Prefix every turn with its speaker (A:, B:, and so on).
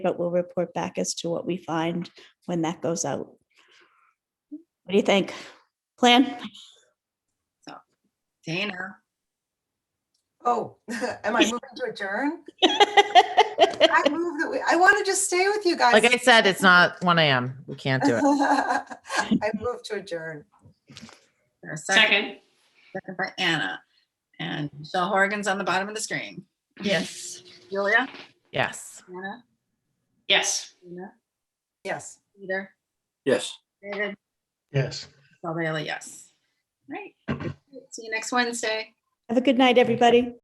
A: but we'll report back as to what we find when that goes out. What do you think? Plan?
B: Dana,
C: Oh, am I moving to adjourn? I move that we, I want to just stay with you guys.
D: Like I said, it's not one AM. We can't do it.
C: I move to adjourn.
B: there a second,
E: Second.
B: second by Anna. And Michelle Horgan's on the bottom of the screen.
E: Yes.
B: Julia?
D: Yes.
B: Anna?
E: Yes.
B: Dana,
C: Yes.
B: Peter?
F: Yes.
B: David?
G: Yes.
B: Michelle Bailey, yes. Right. See you next Wednesday.
A: Have a good night, everybody.